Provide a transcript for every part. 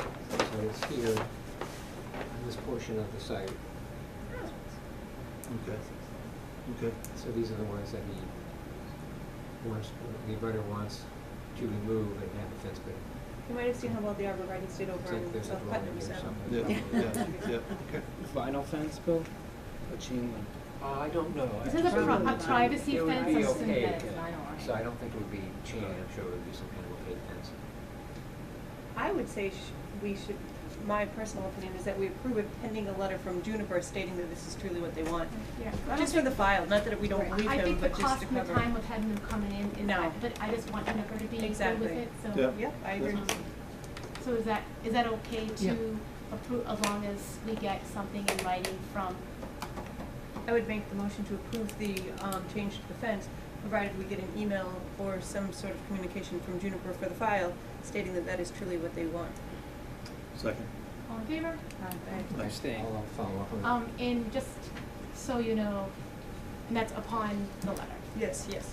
that is here on this portion of the site. Okay, okay. So these are the ones that he wants, the abutter wants to remove and have a fence put in. You might have seen how well the arborvitae It's did over like in there's a South drawing Putnam, here so. somewhere. Yeah, yeah, yeah, okay. Vinyl fence, Bill, or chain link? Uh, I don't know. Is it a Actually, pro- a privacy it would fence be or okay. synthetic vinyl? So I don't think it would be chain, I'm sure it would be some kind of opaque fence. I would say sh- we should, my personal opinion is that we approve it pending a letter from Juniper stating that this is truly what they want. Yeah. Just for the file, not that we don't believe I him, think the but just cost to and the cover. time of having them coming in is, No. that- but I just want him to be good Exactly. with it, so. Yeah. Yep, I agree. Um, So is that, is that okay to approve, as long as we get something in writing from, I would make the motion to approve the, um, change to the fence, provided we get an email or some sort of communication from Juniper for the file stating that that is truly what they want. Second. all in favor? Nice. Abstain. I'll follow up on that. Um, and just so you know, and that's upon the letter. Yes, yes.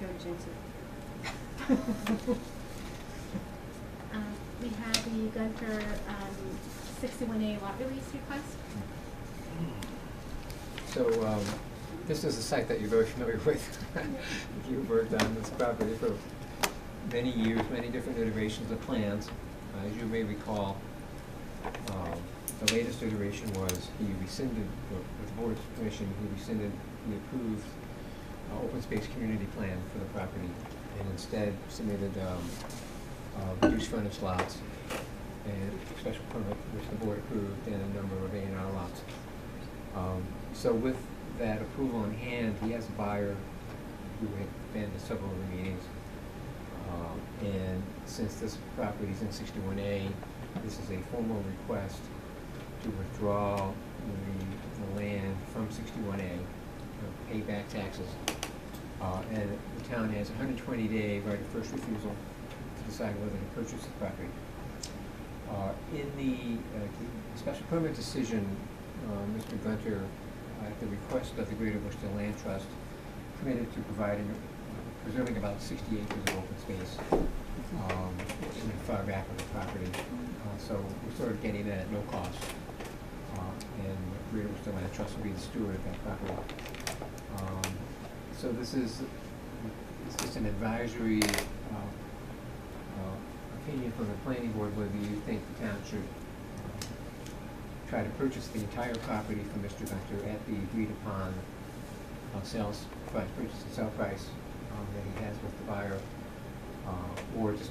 Don't jinx it. Um, we have the Gunter, um, sixty-one A lot release request. So, um, this is a site that you're very familiar with. You've worked on this property for many years, many different iterations of plans. Uh, As you may recall, um, the latest iteration was he rescinded, or with the board's permission, he rescinded the approved uh, open space community plan for the property and instead submitted, um, uh, reduced frontage lots and special permit, which the board approved, and a number of A and R lots. Um, So with that approval in hand, he has a buyer who had been to several of the meetings. Um, And since this property is in sixty-one A, this is a formal request to withdraw the, the land from sixty-one A, pay back taxes. Uh, and the town has hundred and twenty day right of first refusal to decide whether to purchase the property. Uh, In the uh, the special permit decision, uh, Mr. Gunter, uh, at the request of the Greater Worcester Land Trust, committed to providing, uh, preserving about sixty acres of open space um, in the far back of the property. Uh, So we're sort of getting that at no cost. Uh, And Greater Worcester Land Trust will be the steward of that property. Um, So this is, it's just an advisory uh, uh, opinion from the planning board whether you think the town should uh, try to purchase the entire property from Mr. Gunter at the agreed upon uh, sales price, purchase and sale price um, that he has with the buyer, uh, or just,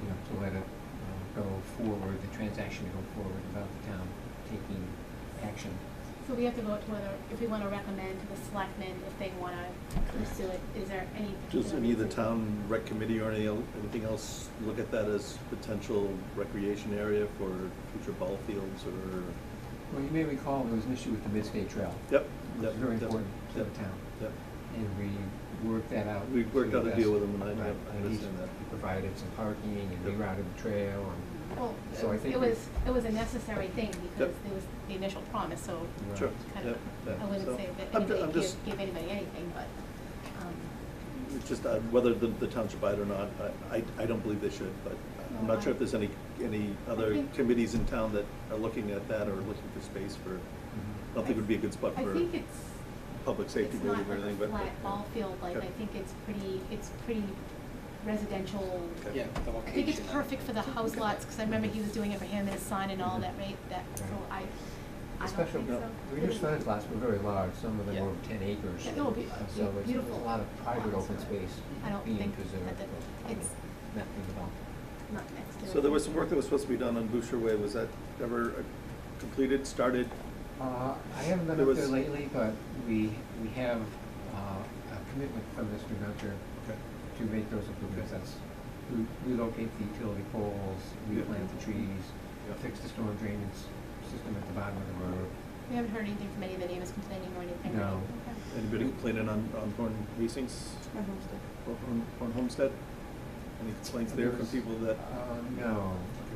you know, to let it uh, go forward, the transaction to go forward without the town taking action. So we have to vote whether, if we wanna recommend to the selectmen if they wanna pursue it, is there any? Does particular any of the reason? town rec committee or any, el- anything else look at that as potential recreation area for future ball fields or? Well, you may recall, there was an issue with the Midstate Trail. Yep. It yep, was very yep, important to the yep, town. Yep. And we worked that out. We worked to out a the deal best. with them, and I- Right, I and he's understand that. Provided some parking and Yep. rerouted the trail and. Well, So I think it we- was, it was a necessary thing because Yep. it was the initial promise, so Right. Sure. kind Yep, of, yep. I wouldn't So, say that I'm ju- anybody I'm gave, just- gave anybody anything, but, um, It's Just uh, whether the, the town should buy it or not, I, I, I don't believe they should, but I'm not sure if there's any, any other think- committees in town that are looking at that or looking for space for, I don't think it would be a good spot I for think it's, public safety it's not building like or a anything, but. flat ball field, like, Okay. I think it's pretty, it's pretty residential. Okay. Yeah, the I location. think it's of it. perfect for the house lots, cause I remember he was doing it for him and his son and all that, right, that, so I, I don't Especially, think no, so. the reduced frontage lots were very large, some of them Yeah. were over ten acres. Yeah, it would be, uh, And So it's- there's beautiful a lot of private lots, open but space I don't being think preserved. that the- but, it's- you know, Not being developed. Not next to it. So there was some work that was supposed to be done on Boucher Way, was that ever uh, completed, started? Uh, I haven't been There up there was- lately, but we, we have, uh, a commitment from Mr. Gunter Okay. to make those improvements, that's re- relocate the utility poles, Yeah. replant the trees, Yeah. fix the storm drainage system at the bottom of the road. We haven't heard anything from any of the neighbors complaining or anything, right? No. Okay. Anybody complaining on, on Horn Hastings, On Homestead. or Horn, Horn Homestead? Any complaints there from There's- people that? Uh, no,